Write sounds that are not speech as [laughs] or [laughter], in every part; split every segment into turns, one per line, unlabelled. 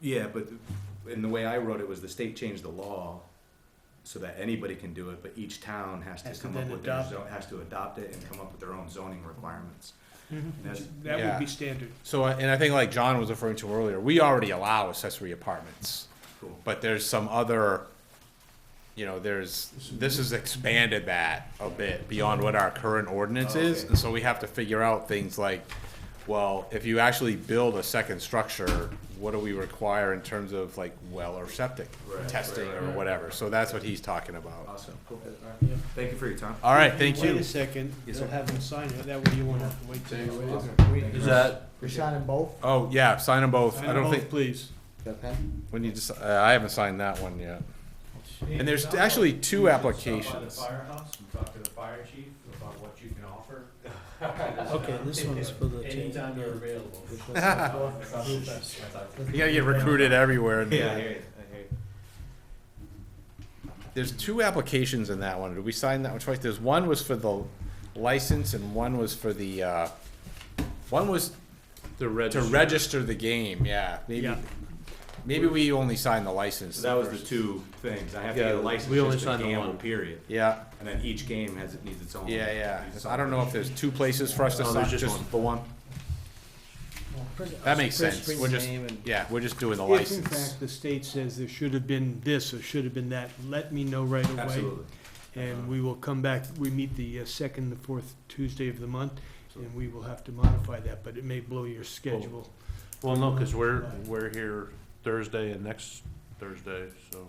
Yeah, but in the way I wrote it was the state changed the law so that anybody can do it, but each town has to
Has to
come
then
up with their
adopt
zone, has to adopt it and come up with their own zoning requirements. And that's-
That would
Yeah.
be standard.
So, uh, and I think like John was referring to earlier, we already allow accessory apartments,
Cool.
but there's some other, you know, there's, this has expanded that a bit beyond what our current ordinance
Oh,
is.
okay.
And so we have to figure out things like, well, if you actually build a second structure, what do we require in terms of like well or septic
Right,
testing
right,
or
right.
whatever? So that's what he's talking about.
Awesome, cool. All right. Thank you for your time.
All right, thank
Wait
you.
a second,
Yes,
they'll
sir.
have them sign it, that way you won't have to wait. till-
Is that,
You're signing both?
Oh, yeah, sign them both.
Sign
I don't
both,
think,
Please.
Okay.
when you just, uh, I haven't signed that one yet. And there's actually two applications.
firehouse and talk to the fire chief about what you can offer.
okay, this one's for the.
Anytime you're available.
You gotta get recruited everywhere. and-
Yeah, I hear you, I hear you.
There's two applications in that one. Did we sign that one twice? There's one was for the license and one was for the, uh, one was
The
to register the game, yeah. Maybe,
Yeah.
maybe we only signed the license.
So that was the two things. I have to get a
Yeah,
license
we only
just to
signed the
gamble,
one.
period.
Yeah,
And then each game has, it needs its own.
yeah, yeah.
needs its
I don't
own
know if there's two places for us to
No, there's
sign,
just
Oh, just
one.
the one. That makes sense. We're just, yeah, we're just doing the
If in
license.
fact the state says there should have been this or should have been that, let me know right away.
Absolutely.
And we will come back, we meet the uh, second, the fourth Tuesday of the month, and we will have to modify that, but it may blow your schedule.
Well, no, because we're, we're here Thursday and next Thursday, so.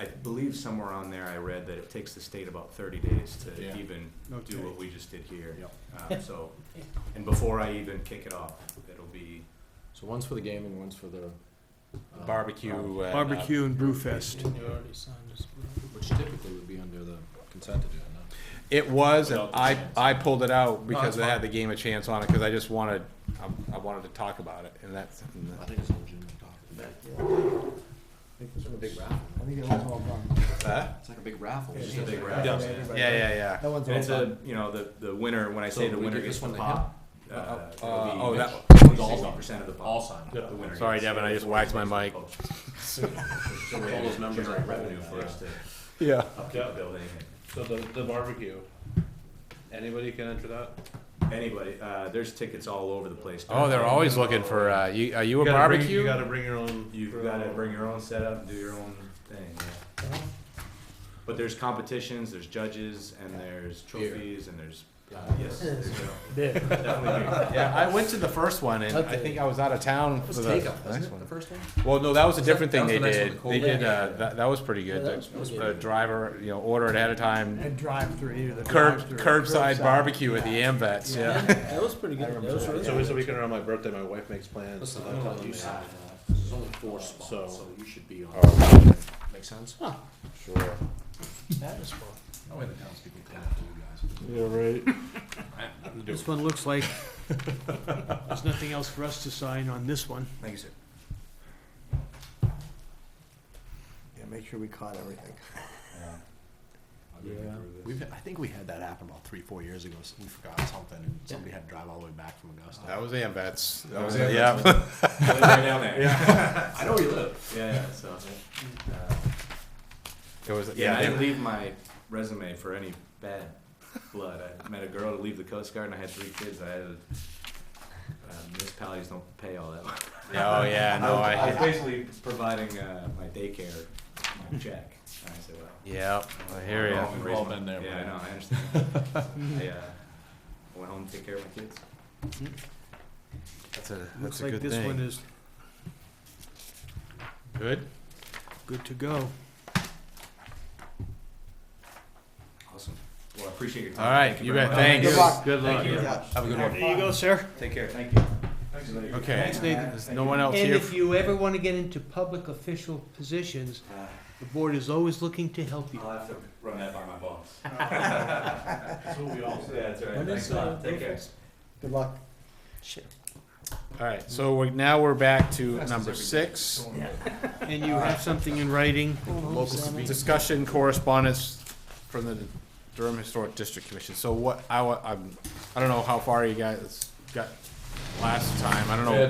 I believe somewhere on there I read that it takes the state about thirty days
Yeah.
to even
Okay.
do what we just did here. Um, So, and before I even kick it off, it'll be,
So one's for the game and one's for the. uh,
Barbecue. and, uh,
Barbecue and brew fest.
You already signed this one. Which typically would be under the consent agenda.
It was, and
Without the
I,
chance.
I pulled it out because
that's
it had
fine.
the game of chance on it, because I just wanted, I, I wanted to talk about it, and that's. and that-
I think it's a legitimate topic. It's a big raffle.
I think it was all done.
It's like a big raffle.
it's
It's
just a
just
big
like-
wrap.
Yeah.
And
Yeah, yeah, yeah.
That one's all
it's
done.
a, you know, the, the winner, when I say
So
the
we
winner
give this
gets the
one to
pop.
Uh,
uh,
oh, that one.
it'll be
All
60% of the pop.
All signed.
The winner
Sorry,
gets-
Devin, I just whacked my mic.
So all those numbers are
Generate
revenue
revenue
for
for us to
Yeah.
upkeep the building.
So the, the barbecue, anybody can enter that?
Anybody, uh, there's tickets all over the place.
Oh, they're always looking for, uh, you, are you a barbecue?
You gotta bring your own.
You've
your
got to
own-
bring your own setup and do your own thing. Yeah.
Uh-huh.
But there's competitions, there's judges, and there's trophies, and there's uh, yes, there you go. definitely. beer.
Yeah, I went to the first one and I think I was out of town for
It was
the
take-up, wasn't
next
it, the
one.
first one?
Well, no, that was a
Was that-
different
that
thing
was
they
the next one,
did.
the
They
cold
did,
layer?
uh, that, that was pretty good.
that was pretty
The-
good.
The driver, you know, ordered ahead of time,
And drive-through, either the
curb,
drive-through or
curbside barbecue at the AMVets, yeah.
That was pretty
I
good.
remember
That was
that.
really
So it's
good.
a weekend around my birthday, my wife makes plans.
Listen,
so I
I'm
tell
telling
them
you,
that.
Sam, there's only four spots,
So-
so you should be on.
Oh,
Make sense?
Sure.
That is fun. That way the townspeople come after you
Yeah, right.
This one looks
[laughs]
like, there's nothing else for us to sign on this one.
Thank you, sir.
Yeah, make sure we caught everything.
guys. We've, I think we had that happen about three, four years ago. so We forgot something and somebody had to drive all the way back from Augusta.
That was AMVets. That
was
was,
AMVets. [laughs]
yeah.
Right down there. Yeah,
I know where you live.
yeah. So uh,
It was,
yeah, I
yeah.
didn't leave my resume for any bad blood. I met a girl to leave the Coast Guard, and I had three kids. I had a, uh, municipalities don't pay all that. well.
Oh, yeah, no,
[laughs] I, was
I,
basically providing uh, my daycare my check. And I said, well.
yeah, I hear ya.
We've all been there. Yeah, I know, I understand.
Mm-hmm.
I, uh, I went home to take care of my kids.
That's a,
Looks
that's a
like
good
this one
thing.
is
Good?
good to go.
Awesome. Well, I appreciate your time.
All right,
Thank
you
very
bet.
much.
Thanks.
Good luck.
Good luck.
Thank you.
Have a good one.
There you go, sir.
Take care, thank you.
Okay,
Thanks, Nathan.
there's no one else
And
here.
if you ever want to get into public official positions,
Uh.
the board is always looking to help you.
I'll have to run that by my boss.
[laughs] That's what we all say.
That's right,
When
thanks
is,
a
uh,
lot, take care.
Good luck.
All right, so we're, now we're back to number six.
And you have something in writing.
Discussion correspondence from the Durham Historic District Commission. So what, I, wa- I'm, I don't know how far you guys got last time. I don't know.